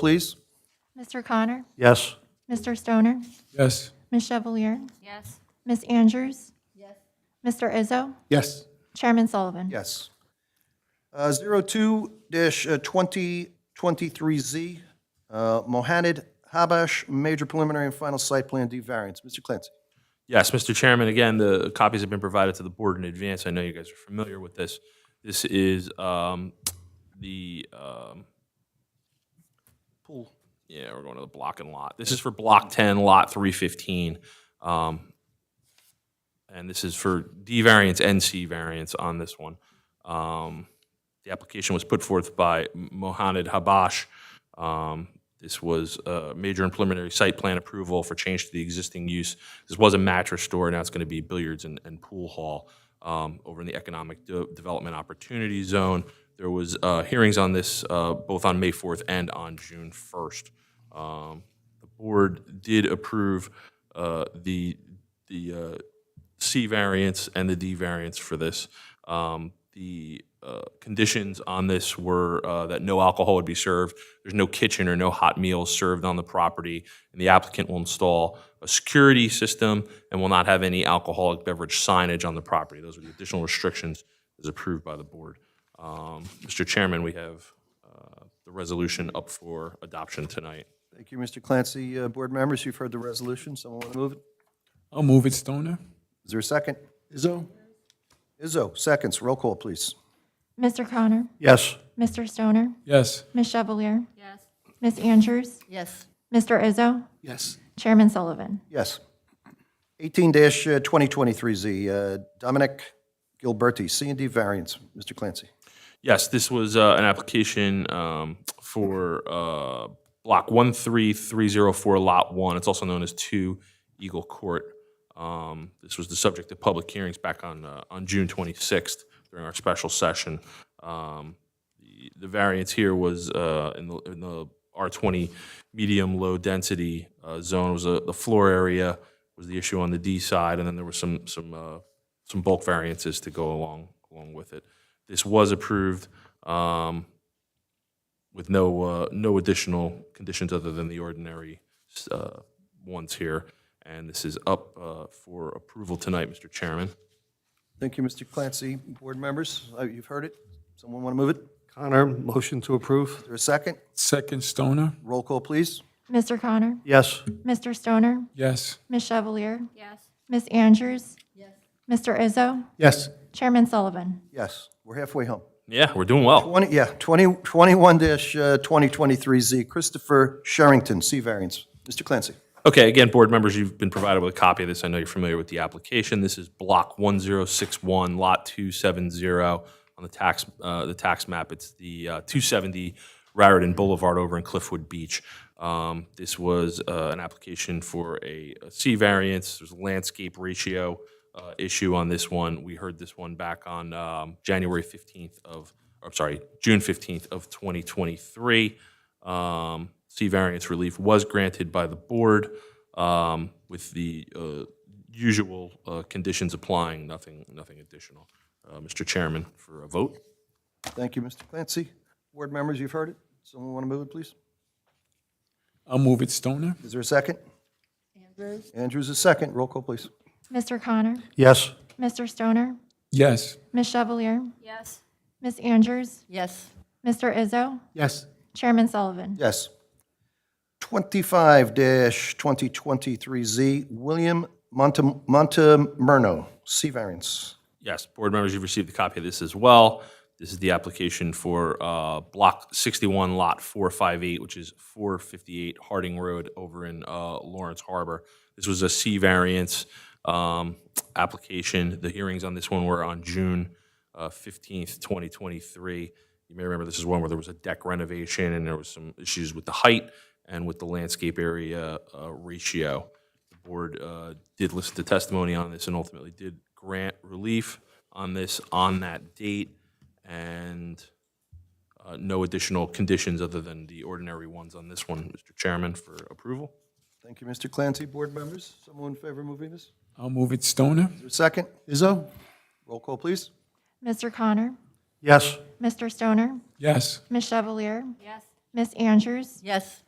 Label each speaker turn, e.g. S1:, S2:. S1: please?
S2: Mr. Connor,
S1: Yes.
S2: Mr. Stoner,
S3: Yes.
S2: Ms. Chevalier,
S4: Yes.
S2: Ms. Andrews, Mr. Izzo,
S3: Yes.
S2: Chairman Sullivan.
S1: Yes. Uh, Zero two dash uh, twenty twenty-three Z, uh, Mohanad Habash, major preliminary and final site plan D variance. Mr. Clancy.
S5: Yes, Mr. Chairman, again, the copies have been provided to the board in advance. I know you guys are familiar with this. This is um, the, um,
S1: Pool.
S5: yeah, we're going to the block and lot. This is for Block 10, Lot 315. um, And this is for D variance and C variance on this one. Um, The application was put forth by Mohanad Habash. Um, This was a major and preliminary site plan approval for change to the existing use. This was a mattress store, now it's going to be billiards and, and pool hall um, over in the Economic De- Development Opportunity Zone. There was uh, hearings on this uh, both on May 4th and on June 1st. Um, The board did approve uh, the, the uh, C variance and the D variance for this. Um, The uh, conditions on this were uh, that no alcohol would be served, there's no kitchen or no hot meals served on the property, and the applicant will install a security system and will not have any alcoholic beverage signage on the property. Those are the additional restrictions as approved by the board. Um, Mr. Chairman, we have uh, the resolution up for adoption tonight.
S1: Thank you, Mr. Clancy. Uh, Board members, you've heard the resolution. Someone want to move it?
S3: I'll move it, Stoner.
S1: Is there a second?
S3: Izzo?
S1: Izzo, seconds. Roll call, please.
S2: Mr. Connor,
S1: Yes.
S2: Mr. Stoner,
S3: Yes.
S2: Ms. Chevalier,
S4: Yes.
S2: Ms. Andrews,
S4: Yes.
S2: Mr. Izzo,
S3: Yes.
S2: Chairman Sullivan.
S1: Yes. Eighteen dash uh, twenty twenty-three Z, uh, Dominic Gilberti, C and D variance. Mr. Clancy.
S5: Yes, this was uh, an application um, for uh, block 13304, lot 1. It's also known as 2 Eagle Court. Um, This was the subject of public hearings back on, uh, on June 26th during our special session. Um, The the variance here was uh, in the, in the R20 medium low density uh, zone was uh, the floor area was the issue on the D side, and then there was some, some, uh, some bulk variances to go along, along with it this was approved um, with no, uh, no additional conditions other than the ordinary uh, ones here. And this is up uh, for approval tonight, Mr. Chairman.
S1: Thank you, Mr. Clancy. Board members, uh, you've heard it. Someone want to move it? Is
S6: Connor, motion to approve?
S1: there a second?
S3: Second, Stoner.
S1: Roll call, please.
S2: Mr. Connor,
S1: Yes.
S2: Mr. Stoner,
S3: Yes.
S2: Ms. Chevalier,
S4: Yes.
S2: Ms. Andrews, Mr. Izzo,
S3: Yes.
S2: Chairman Sullivan.
S1: Yes, we're halfway home.
S5: Yeah, we're doing well.
S1: 20, yeah, 20, uh, 21-2023Z, Christopher Sherrington, C variance. Mr. Clancy.
S5: Okay, again, board members, you've been provided with a copy of this. I know you're familiar with the application. This is block 1061, lot 270 on the tax, uh, the tax map. It's the uh, 270 Raritan Boulevard over in Cliffwood Beach. Um, This was uh, an application for a a C variance. There's a landscape ratio uh, issue on this one. We heard this one back on um, January 15th of, I'm sorry, June 15th of 2023. Um, C variance relief was granted by the board um, with the uh, usual uh, conditions applying, nothing, nothing additional. Uh, Mr. Chairman, for a vote?
S1: Thank you, Mr. Clancy. Board members, you've heard it. Someone want to move it, please?
S3: I'll move it, Stoner.
S1: Is there a second? Andrews. Andrews is second. Roll call, please.
S2: Mr. Connor,
S1: Yes.
S2: Mr. Stoner,
S3: Yes.
S2: Ms. Chevalier,
S4: Yes.
S2: Ms. Andrews,
S4: Yes.
S2: Mr. Izzo,
S3: Yes.
S2: Chairman Sullivan.
S1: Yes. 25-2023Z, William Monte- Montemurno, C variance.
S5: Yes, board members, you've received a copy of this as well. This is the application for uh, Block 61, Lot 458, which is 458 Harding Road over in uh, Lawrence Harbor. This was a C variance um, application. The hearings on this one were on June uh, 15th, 2023. You may remember this is one where there was a deck renovation and there was some issues with the height and with the landscape area uh, ratio. The board uh, did listen to testimony on this and ultimately did grant relief on this on that date, and uh, no additional conditions other than the ordinary ones on this one, Mr. Chairman, for approval.
S1: Thank you, Mr. Clancy. Board members, someone in favor of moving this? Is
S3: I'll move it, Stoner.
S1: there a second?
S3: Izzo?
S1: Roll call, please.
S2: Mr. Connor,
S1: Yes.
S2: Mr. Stoner,
S3: Yes.
S2: Ms. Chevalier,
S4: Yes.
S7: Miss Andrews?
S2: Yes.